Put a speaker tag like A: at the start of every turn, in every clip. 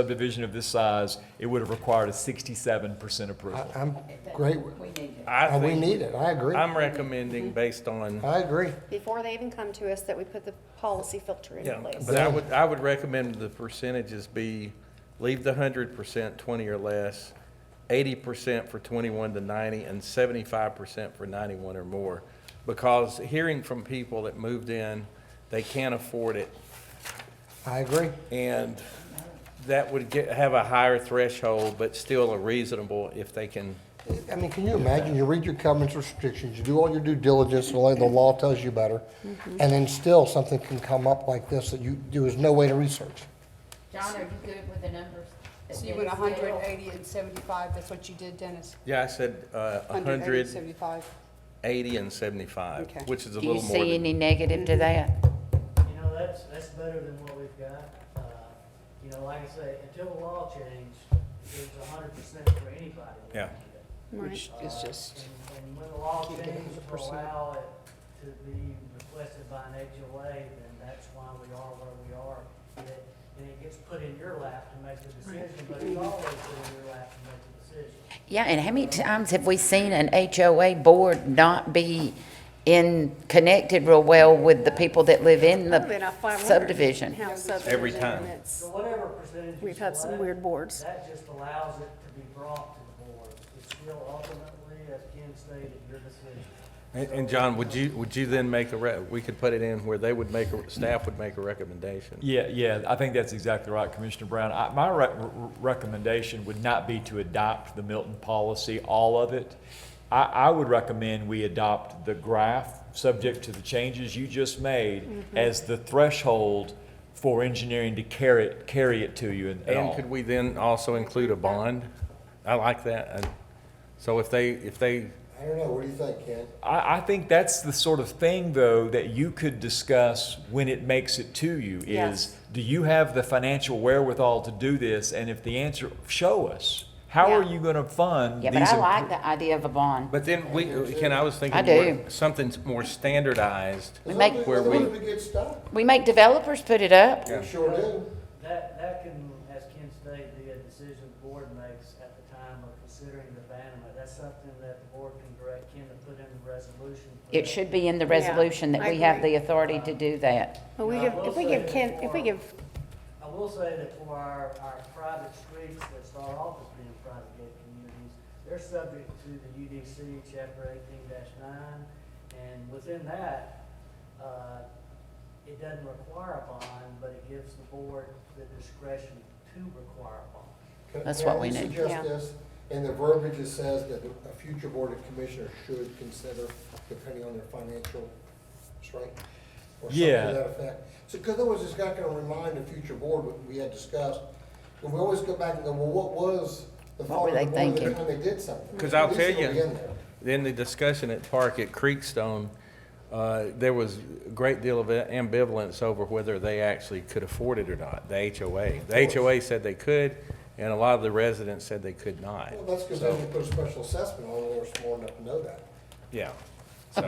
A: subdivision of this size, it would have required a sixty-seven percent
B: I-
A: approval.
B: I'm great,
C: We need it.
D: I
B: Uh, we
D: think,
B: need it, I agree,
D: I'm recommending based on,
B: I agree.
E: before they even come to us, that we put the policy filter in
D: yeah,
E: place.
D: but I would, I would recommend the percentages be, leave the hundred percent, twenty or less, eighty percent for twenty-one to ninety, and seventy-five percent for ninety-one or more. Because hearing from people that moved in, they can't afford it,
B: I agree,
D: and that would get, have a higher threshold, but still a reasonable if they can,
B: I mean, can you imagine, you read your covenants restrictions, you do all your due diligence, the way the law tells you better,
C: Mm-hmm.
B: and then still something can come up like this that you, there was no way to research.
C: John, are you good with the numbers?
F: So you went hundred, eighty, and seventy-five, that's what you did, Dennis?
D: yeah, I said, uh, a
F: 180,
D: hundred,
F: 75.
D: eighty, and seventy-five,
F: Okay.
D: which is a
C: Do you
D: little more
C: see
D: than.
C: any negative to that?
G: You know, that's, that's better than what we've got. Uh, You know, like I say, until the law changed, it was a hundred percent for anybody. that
D: Yeah.
G: did it.
F: Which is
G: Uh,
F: just,
G: and- And when the law
F: can't get a
G: changed
F: hundred
G: to
F: percent.
G: allow it to be requested by an HOA, then that's why we are where we are. And it- And it gets put in your lap to make the decision, but it's always put in your lap to make the decision.
C: Yeah, and how many times have we seen an HOA board not be in, connected real well with the people that live in
H: Been a
C: the
H: 500
C: subdivision?
H: house subdivision.
D: Every time.
H: and it's-
G: So whatever percentage you
H: We've had some
G: select,
H: weird boards.
G: That just allows it to be brought to the board. It's still ultimately, as Ken stated, your decision.
D: And, and John, would you, would you then make a, re- we could put it in where they would make, a staff would make a recommendation?
A: Yeah, yeah, I think that's exactly right, Commissioner Brown. I, my rec- r- recommendation would not be to adopt the Milton policy, all of it. I, I would recommend we adopt the graph, subject to the changes you just made, as the threshold for engineering to carry it, carry it to you and and
D: And
A: all.
D: could we then also include a bond? I like that. And so if they, if they,
B: I don't know, what do you think, Ken?
A: I, I think that's the sort of thing, though, that you could discuss when it makes it to you is
H: Yes.
A: do you have the financial wherewithal to do this? And if the answer, show us. How are
C: Yeah.
A: you going to fund
C: Yeah,
A: these?
C: but I
A: impro-
C: like the idea of a bond.
D: but then we, Ken, I was thinking.
C: I do.
D: more- Something more standardized.
C: We make-
D: Where we-
B: get stuck,
C: We make developers put it up.
D: Yeah.
B: sure do.
G: That, that can, as Ken stated, be a decision the board makes at the time of considering the abandonment. That's something that the board can direct Ken to put in the resolution. for
C: It
G: that.
C: should be in the resolution that
H: I
C: we have
H: agree.
C: the authority to do that.
H: Well, we give, if we give Ken, if we give,
G: I will say that for our, our private streets that start off as being private gated communities, they're subject to the UDC chapter eighteen nine. And within that, uh, it doesn't require a bond, but it gives the board the discretion to require a bond.
B: Can-
C: That's
B: can I
C: what we
B: just
C: need.
B: Suggest
H: Yeah.
B: this, and the verbiage it says that a future board of commissioners should consider depending on their financial strength. Or something
A: Yeah.
B: to that effect. So, because otherwise it's not gonna remind the future board what we had discussed. And we always go back and go, well, what was the
C: What
B: thought
C: were
B: of the
C: they
B: board at the
C: thinking?
B: time they did something?
D: Because I'll
B: At least
D: tell
B: it'll
D: you,
B: be in there.
D: in the discussion at Park at Creekstone, uh, there was a great deal of ambivalence over whether they actually could afford it or not, the HOA. The HOA said they could, and a lot of the residents said they could not.
B: Well, that's because then you put a special assessment on it, or smart enough to know that.
D: Yeah, so.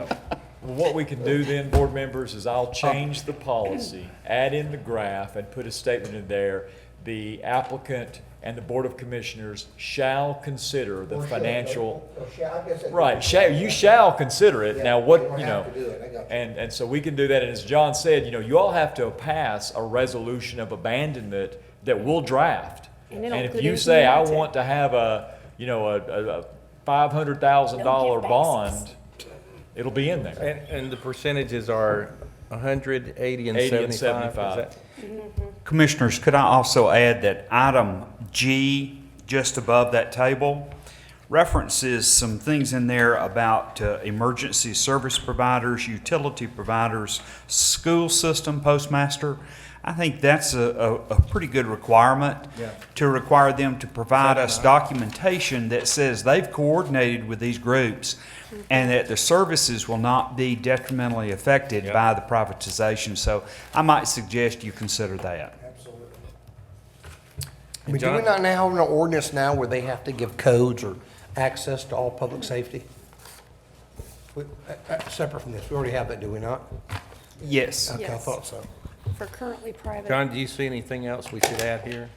A: Well, what we can do then, board members, is
C: Oh.
A: I'll change the policy, add in the graph, and put a statement in there. The applicant and the Board of Commissioners shall consider the
B: Or should,
A: financial,
B: or shall, I guess it-
A: right, shall, you shall consider it.
B: Yeah,
A: Now, what,
B: they don't
A: you know.
B: have to do it, I got you.
A: And, and so we can do that, and as John said, you know, you all have to pass a resolution of abandonment that we'll draft.
H: And it'll
A: if
H: include
A: you say, I
H: everything on it."
A: want to have a, you know, a, a, a five hundred thousand dollar
H: Don't give basis.
A: bond, it'll be in there.
D: And, and the percentages are 100, 80, and
A: 80
D: 75?
A: and
D: Is
A: 75.
D: that-
I: Commissioners, could I also add that item G, just above that table, references some things in there about uh, emergency service providers, utility providers, school system postmaster. I think that's a, a, a pretty good requirement. To require them to provide us documentation that says they've coordinated with these groups and that their services will not be detrimentally affected by the privatization. So I might suggest you consider that.
B: Absolutely.
D: And
B: But do we
D: John-
B: not now have an ordinance now where they have to give codes or access to all public safety? We- uh, uh, Separate from this, we already have that, do we not?
I: Yes.
B: Okay, I
H: Yes.
B: thought so.
H: for currently private,
D: John, do you see anything else we should add here?